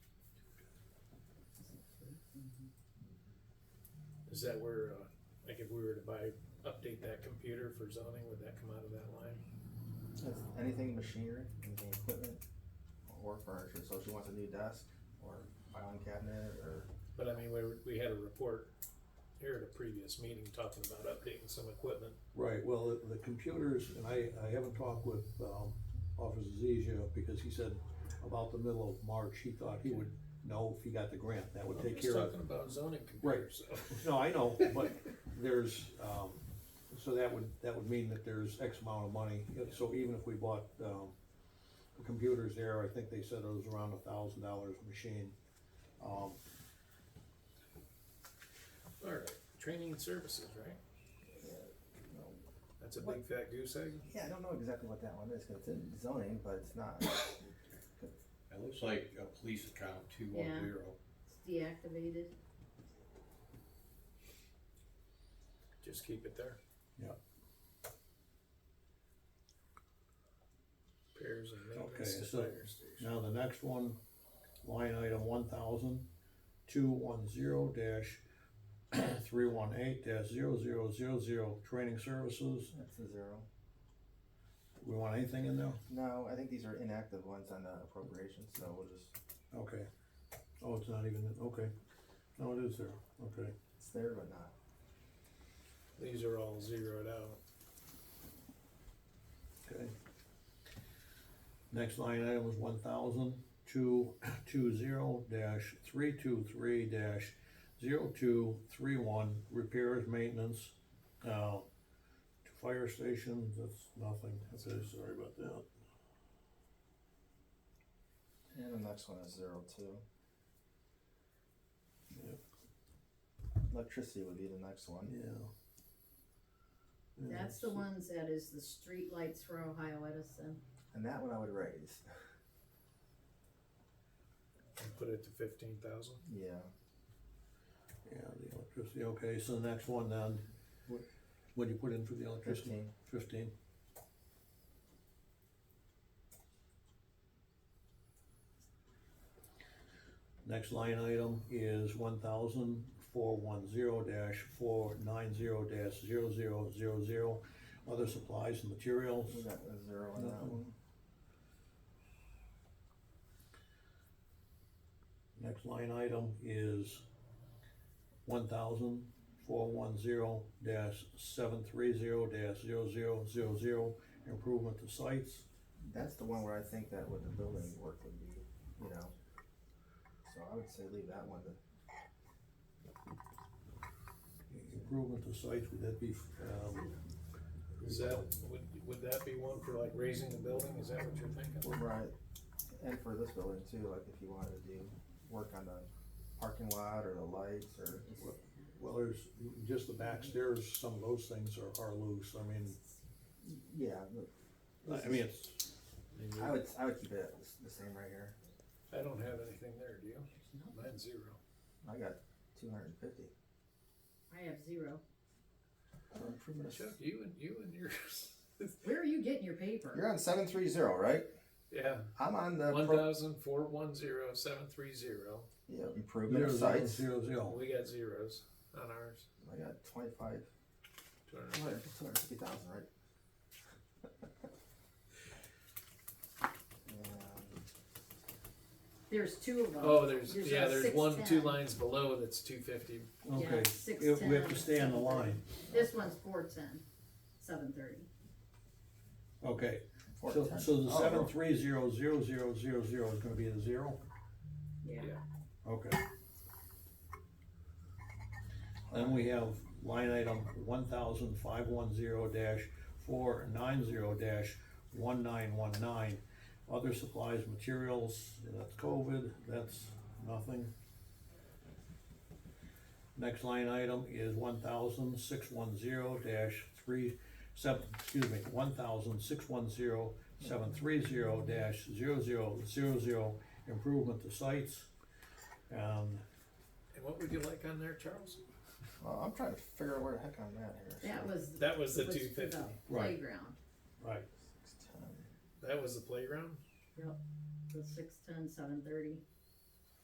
Is that where, uh, like if we were to buy, update that computer for zoning, would that come out of that line? That's anything machinery, anything equipment, or furniture, so if she wants a new desk, or filing cabinet, or, But I mean, we, were- we had a report here at a previous meeting talking about updating some equipment. Right, well, the- the computers, and I, I haven't talked with, um, Officer Zizio, because he said about the middle of March, he thought he would know if he got the grant, that would I'm take just care of. Talking about zoning Right. computers, so. No, I know, but there's, um, so that would, that would mean that there's X amount of money, so even if we bought, um, computers there, I think they said it was around a thousand dollars a machine. Um, Alright, training and services, right? you know. That's a big fat goose egg? Yeah, I don't know exactly what that one is, cause it's in zoning, but it's not, It looks like a police account, two one Yeah. zero. It's deactivated. Just keep it there. Yeah. Repairs and maintenance Okay, to so- fire station. Now, the next one, line item one thousand, two one zero dash, three one eight dash zero zero zero zero, training services, that's a zero. we want anything in there? No, I think these are inactive ones on the appropriations, so we'll just, Okay. Oh, it's not even, okay, no, it is there, okay. it's there but not. These are all zeroed out. Okay. Next line item is one thousand two two zero dash three two three dash zero two three one, repairs, maintenance, uh, to fire stations, that's nothing, okay, sorry about that. And the next one is zero two. Yep. Electricity would be the next one. Yeah. Yeah, That's the so- ones that is the street lights for Ohio Edison. And that one I would raise. And put it to fifteen thousand. Yeah. Yeah, the electricity, okay, so the next one then, what, what do you put in for the electricity? Fifteen. Fifteen. Next line item is one thousand four one zero dash four nine zero dash zero zero zero zero, other supplies and materials. We got a zero on that Nothing. one. Next line item is one thousand four one zero dash seven three zero dash zero zero zero zero, improvement to sites. That's the one where I think that what the building work would be, you know. So I would say leave that one to, Improvement to sites, would that be, um, Is that, would, would that be one for like raising the building? Is that what you're thinking? right, and for this building too, like if you wanted to do work on the parking lot or the lights or. well, there's, just the back stairs, some of those things are, are loose, I mean, Yeah, look, I mean, it's, And I you- would, I would keep it the s- the same right here. I don't have anything there, do you? Mine's zero. I got two hundred and fifty. I have zero. Chuck, you and, you and yours. Where are you getting your paper? You're on seven three zero, right? Yeah, I'm on the one pro- thousand four one zero seven three zero. yeah, improvement of sites. Zero, zero, We got zeros on ours. I got twenty-five, Two hundred and two hundred, fifty. two hundred fifty thousand, right? And There's two of them. Oh, there's, There's yeah, a there's six one, two ten. lines below that's two fifty. okay, six, If we have ten, to stay on the seven, line, This one's four ten, seven thirty. okay, four so, ten. so the Oh, seven three zero zero zero zero zero is gonna be the zero, Yeah. okay. Then we have line item one thousand five one zero dash four nine zero dash one nine one nine. Other supplies, materials, that's COVID, that's nothing. Next line item is one thousand six one zero dash three seven, excuse me, one thousand six one zero seven three zero dash zero zero zero zero, improvement to sites. Um, And what would you like on there, Charles? Well, I'm trying to figure out where the heck I'm at here. so That was. That was the was two for the fifty. Right. Playground, right, six, ten. That was the playground? the six ten, seven thirty.